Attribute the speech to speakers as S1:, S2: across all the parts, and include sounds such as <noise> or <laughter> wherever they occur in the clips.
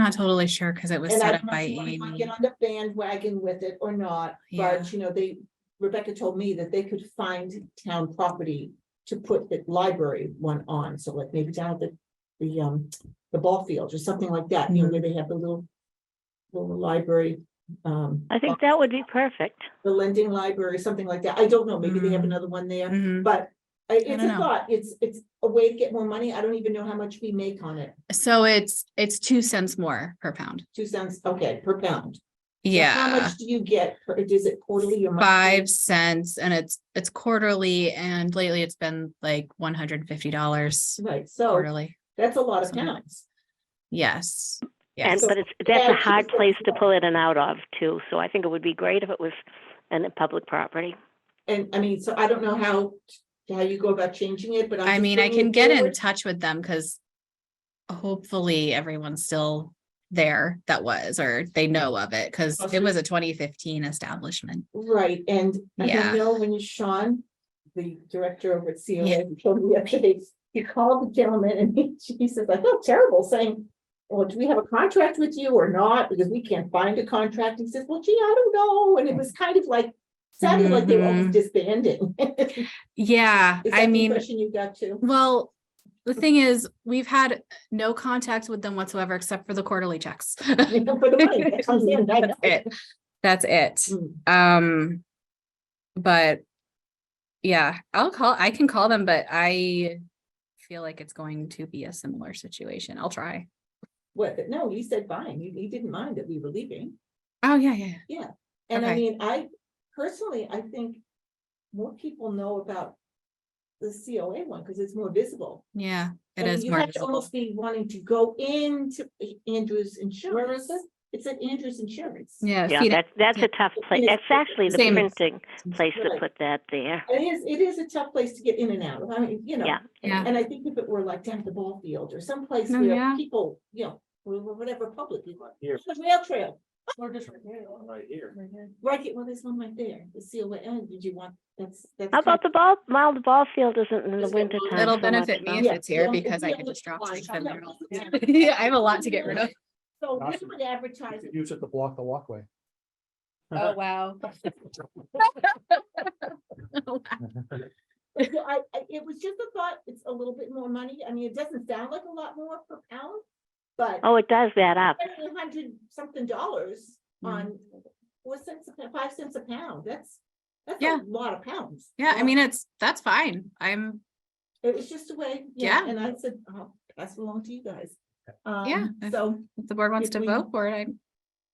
S1: Not totally sure because it was
S2: And I
S1: set up
S2: don't know
S1: by
S2: if you wanna kinda
S1: Amy.
S2: Get on the bandwagon with it or not,
S1: Yeah.
S2: but you know, they, Rebecca told me that they could find town property to put the library one on, so like maybe down at the, the, um, the ball field or something like that, you know,
S1: Mm-hmm.
S2: where they have the little, little library, um,
S3: I think that would be perfect.
S2: the lending library, something like that. I don't know, maybe they have
S1: Mm.
S2: another one there,
S1: Mhm.
S2: but I- it's
S1: don't
S2: a
S1: know.
S2: thought, it's, it's a way to get more money. I don't even know how much we make on it.
S1: So it's, it's two cents more per pound.
S2: Two cents, okay, per pound. So How
S1: Yeah.
S2: much do you get? per- Is it quarterly or monthly?
S1: Five cents and it's, it's quarterly and lately it's been like one hundred and fifty dollars
S2: Right, so
S1: quarterly.
S2: Oh, that's a lot of
S1: Something like
S2: pounds.
S1: Yes,
S3: And,
S1: yes.
S3: but it's, that's
S2: Yeah,
S3: a
S2: it's
S3: hard
S2: just a-
S3: place to pull in and out of too. So I think it would be great if it was in a public property.
S2: And I mean, so I don't know how, how you go about changing it, but. I'm
S1: I
S2: just
S1: mean, I
S2: bringing it
S1: can get in
S2: forward.
S1: touch with them because hopefully everyone's still there that was, or they know of it because it was a twenty fifteen establishment.
S2: Right, and I
S1: Yeah.
S2: know when Sean, the director over at
S1: Yeah.
S2: COA, he told me yesterday, he called the gentleman and he, he says, I felt terrible saying, well, do we have a contract with you or not? Because we can't find a contract. He says, well, gee, I don't know. And it was kind of like, sounded like they were almost
S1: Mhm.
S2: disbanding. <laughs> Is
S1: Yeah,
S2: that
S1: I
S2: the
S1: mean.
S2: impression you got too?
S1: Well, the thing is, we've had no contact with them whatsoever except for the quarterly checks. <laughs>
S2: For the money that comes in, I know.
S1: That's it. That's it.
S2: Mm.
S1: Um, but yeah, I'll call, I can call them, but I feel like it's going to be a similar situation. I'll try.
S2: What, no, you said fine, you, you didn't mind that we were leaving,
S1: Oh, yeah, yeah. yeah.
S2: and I
S1: Okay.
S2: mean, I personally, I think. More people know about the COA one, because it's more visible.
S1: Yeah,
S2: I
S1: it
S2: mean,
S1: is
S2: You
S1: more
S2: have to
S1: visible.
S2: almost be wanting to go into Andrews Insurance. Where is it? It's at Andrews Insurance.
S1: Yeah.
S3: Yeah,
S1: feed it-
S3: that's, that's
S1: yeah.
S3: a tough place.
S2: It's-
S3: It's actually the
S1: Same.
S3: printing place to
S2: Right.
S3: put that there.
S2: It is, it is a tough place to get in and out, of. I mean, you know,
S3: Yeah.
S1: Yeah.
S2: and I think if it were like down at the ball field or someplace
S1: No,
S2: where
S1: yeah.
S2: people, you know, wh- wh- whatever public. you want.
S4: Here.
S2: The rail trail,
S4: We're just right here. Right here.
S2: right, here- well, there's one right there, the COA, and did you want, that's, that's.
S3: How
S2: kind
S3: about the ball, well, the ball field isn't in the
S2: Just get
S3: winter
S2: one.
S3: time.
S1: It'll
S3: so much,
S1: benefit me
S3: huh?
S1: if
S2: Yeah,
S1: it's here
S2: yeah,
S1: because I
S2: yeah,
S1: can just drop
S2: fine,
S1: stuff
S2: shut
S1: in
S2: up.
S1: there. all the time. <laughs> I have a lot to get rid of.
S2: So we would advertise,
S4: <laughs>
S2: it.
S4: Use it to block
S1: <laughs>
S4: the walkway.
S1: Oh, wow.
S2: But, you know, I, I, it was just a thought, it's a little bit more money, I mean, it doesn't sound like a lot more per pound, but.
S3: Oh, it does that up.
S2: spending a Hundred something dollars
S1: Mm.
S2: on four cents, a pa- five cents a pound, that's, that's
S1: Yeah.
S2: a lot of pounds.
S1: Yeah, I
S2: Yeah.
S1: mean, it's, that's fine. I'm
S2: It was just a way, yeah,
S1: Yeah.
S2: and I said, I'll pass it along to you guys.
S1: Yeah,
S2: Um,
S1: if-
S2: So,
S1: If the board wants
S2: If
S1: to
S2: we-
S1: vote for it, I,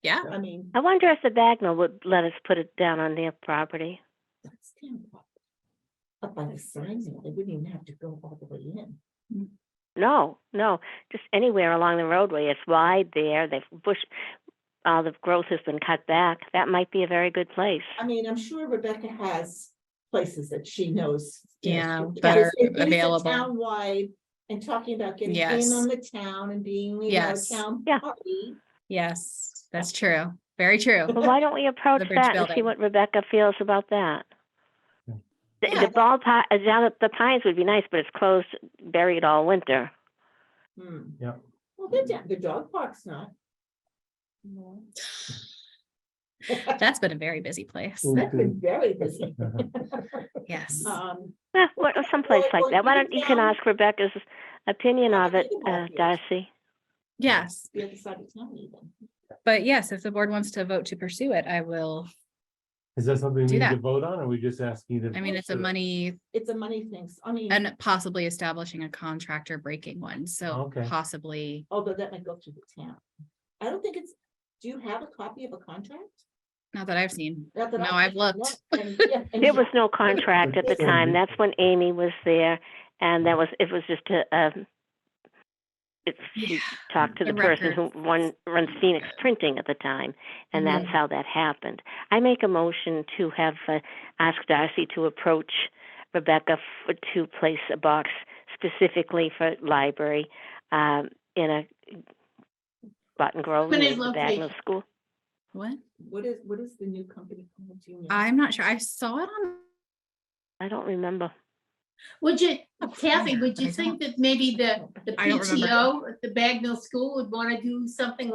S1: yeah,
S2: I mean,
S3: I wonder if the Bagnell would let us put it down on their property.
S2: that's kind of. Up by the sign, you know, they wouldn't even have to go all the way in.
S3: No, no, just anywhere along the roadway. It's wide there. They've bush, all the growth has been cut back. That might be a very good place.
S2: I mean, I'm sure Rebecca has places that she knows. you know,
S1: Yeah,
S2: she-
S1: that
S2: because
S1: are
S2: it is a
S1: available.
S2: Townwide and talking about getting in
S1: Yes.
S2: on the town and being, you know, a
S1: Yes.
S2: town
S3: Yeah.
S2: party.
S1: yes, that's true. Very true.
S3: Well, why don't we approach
S1: bridge
S3: that and see
S1: building.
S3: what Rebecca feels about that?
S4: Yeah.
S3: The,
S2: Yeah,
S3: the ballpark, uh, down at the Pines would be nice, but it's closed, buried all winter.
S2: Hmm.
S4: Yeah.
S2: Well, they're down, the dog park's not.
S1: That's been a very busy place.
S4: Ooh.
S2: That's been very busy.
S1: Yes.
S2: Um,
S3: Eh, what, someplace
S2: Well,
S3: like
S2: well,
S3: that. Why
S2: you
S3: don't you can
S2: can-
S3: ask Rebecca's opinion
S2: Yeah,
S3: of
S2: I
S3: it,
S2: think
S3: uh,
S2: about it.
S3: Darcy?
S1: Yes,
S2: the other side of town even.
S1: but yes, if the board wants to vote to pursue it, I will.
S4: <laughs> Is that something we
S1: Do
S4: need
S1: that.
S4: to vote on, or we just asking you to?
S1: I mean, it's a
S4: to-
S1: money
S2: It's a money thing. so, I mean,
S1: and possibly establishing a contractor breaking one, so
S4: Okay.
S1: possibly.
S2: although that might go through the town. I don't think it's, do you have a copy of a contract?
S1: Not that I've seen.
S2: Not that I-
S1: No, I've looked.
S2: No, and- yeah, and
S3: There
S2: yeah,
S3: was no contract at the
S4: It's gonna
S1: Mm-hmm.
S3: time.
S4: be-
S3: That's when Amy was there, and that was it was just a. Um, it's she
S1: Yeah.
S3: talked to
S1: The
S3: the person who
S1: records. Mm-hmm.
S3: won, runs Phoenix Printing at the time, and that's
S2: Yeah.
S3: how that happened. I make a motion to have uh, ask Darcy to approach Rebecca for, to place a box specifically for library um, in a Button Grove near
S2: Permanent
S3: the Bagnell
S2: location.
S3: School.
S1: What?
S2: What is, what is the new company called? Do you know?
S1: I'm not sure. I saw it on.
S3: I don't remember.
S5: Would you,
S1: Oh,
S5: Kathy,
S1: yeah,
S5: would
S1: but I don't-
S5: you think that maybe the, the
S1: I don't remember.
S5: PTO, at the Bagnell School would want to do something like